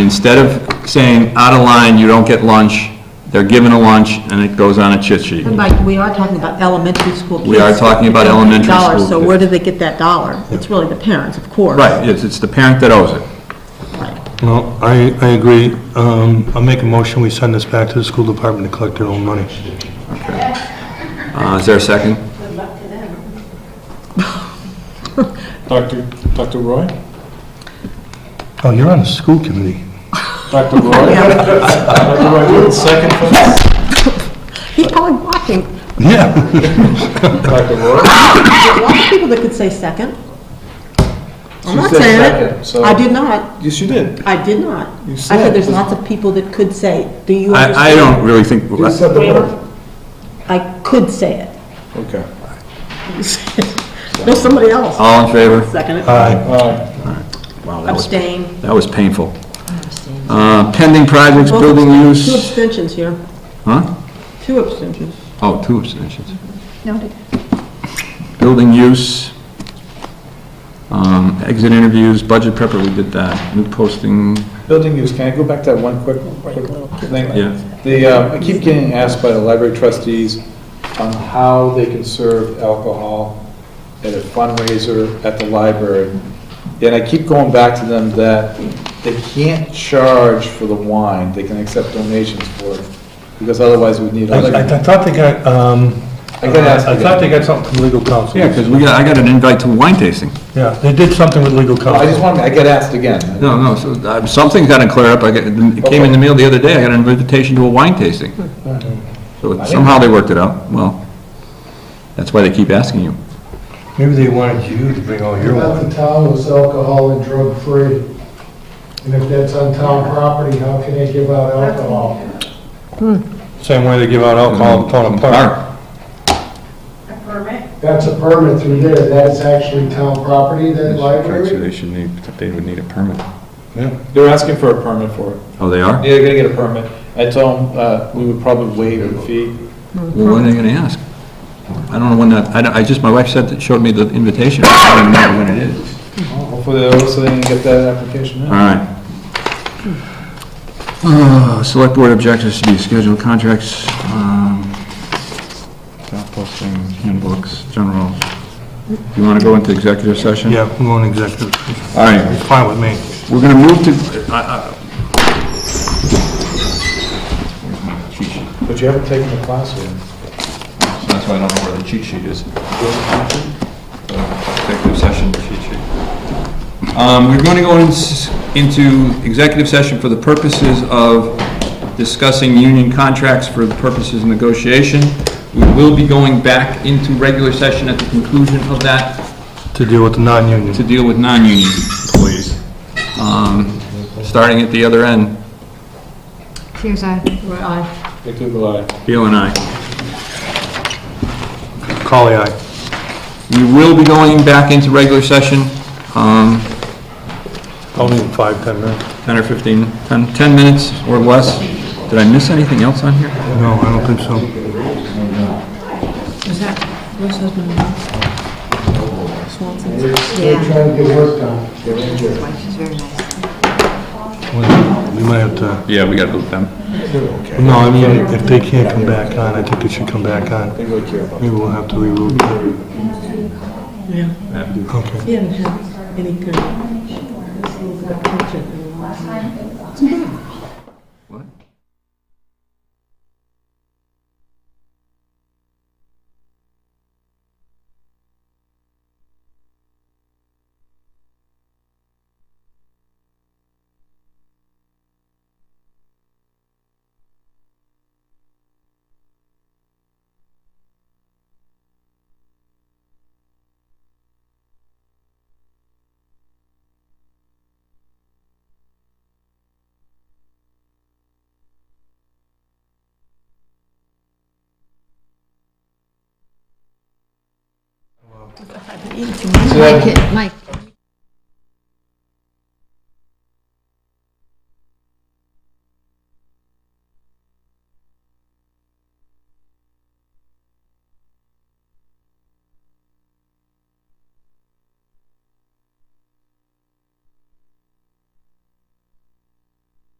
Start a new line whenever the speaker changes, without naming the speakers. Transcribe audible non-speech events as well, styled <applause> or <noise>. Instead of saying out of line, you don't get lunch, they're given a lunch and it goes on a chit sheet.
And Mike, we are talking about elementary school kids.
We are talking about
They don't get
elementary
the dollar,
school
So
kids.
where do they get that dollar? It's really the parents, of course.
Right, it's, it's the parent that owes it.
No, I, I agree. Um, I'll make a motion, we send this back to the school department to collect their own money.
Uh, is there a second?
Dr. Dr. Roy?
Oh, you're on the school committee.
Dr. Roy? Dr. Roy, would second that?
He's probably watching.
Yeah.
Dr. Roy?
There's lots of people that could say second. I'm
She
not
said
saying
second,
it.
so-
I did not.
Yes, you did.
I did not.
You
I
said-
said there's lots of people that could say, it. do you
I, I
understand?
don't really think,
the word.
I could say it. <laughs>
Okay.
No, somebody else.
all in favor?
Second
Uh,
it.
Aye.
All right.
Wow, that was,
Abstain.
that was painful. Uh, pending projects, building
Two
use,
abstentions here.
huh?
Two abstentions.
Oh, two abstentions. Noted. Building use, um, exit interviews, budget prepper, we did that, new posting,
Building use, can I go back to that one quick, quick thing?
Yeah.
The, uh, I keep getting asked by the library trustees on how they can serve alcohol at a fundraiser at the library. And I keep going back to them that they can't charge for the wine, they can accept donations for it, because otherwise we'd need.
I, I- I thought they got, um,
I gotta ask
I
you.
thought they got something from legal counsel.
yeah, because we got, I got an invite to wine tasting.
Yeah, they did something with legal
Oh,
counsel.
I just want, I get asked again.
No, no, so, uh, something's gotta clear up, I got, it came in the mail the other day, I got an invitation to a wine tasting. So it- somehow they worked it out, well, that's why they keep asking you.
Maybe they wanted you to bring all your
Not
wine.
the town was alcohol and drug-free. And if that's on town property, how can they give out alcohol?
Same way they give out alcohol in Tona Park.
Mark,
That's a permit through there, that's actually town property, that library?
They should need, they would need a permit.
They're asking for a permit for it.
Oh, they are?
Yeah, they're gonna get a permit. I told them, uh, we would probably waive the fee.
Well, when are they gonna ask? I don't know when that, I, don't- I just, my wife said, that showed me the invitation, I don't even know when it is.
Hopefully, they also didn't get that application in.
All right. Uh, Select board objectives to be scheduled contracts, um, job postings, handbooks, general. You want to go into executive session?
Yeah, we want executive. session.
All right,
It's fine with me.
we're going to move to, I-
But you haven't taken the class yet.
I- so that's why I don't know where the cheat sheet is. Uh, Executive session cheat sheet. Um, We're going to go ins- into executive session for the purposes of discussing union contracts for the purposes of negotiation. We will be going back into regular session at the conclusion of that
To deal with the non-union.
to deal with non-union employees, Um, starting at the other end,
Here's a
They could rely.
Bill and I.
Call the aye.
We will be going back into regular session, um,
Only in five, 10 minutes.
10 or 15, 10 10 minutes or less. Did I miss anything else on here?
No, I don't think so.
Is that, what's his name?
They're trying to get work done.
She's very nice.
We might have to,
Yeah, we gotta boot them.
no, I mean, if they can't come back on, I think it should come back on. Maybe we'll have to reroute.
Yeah.
Okay.
He didn't have any good attention.
Mike, Mike.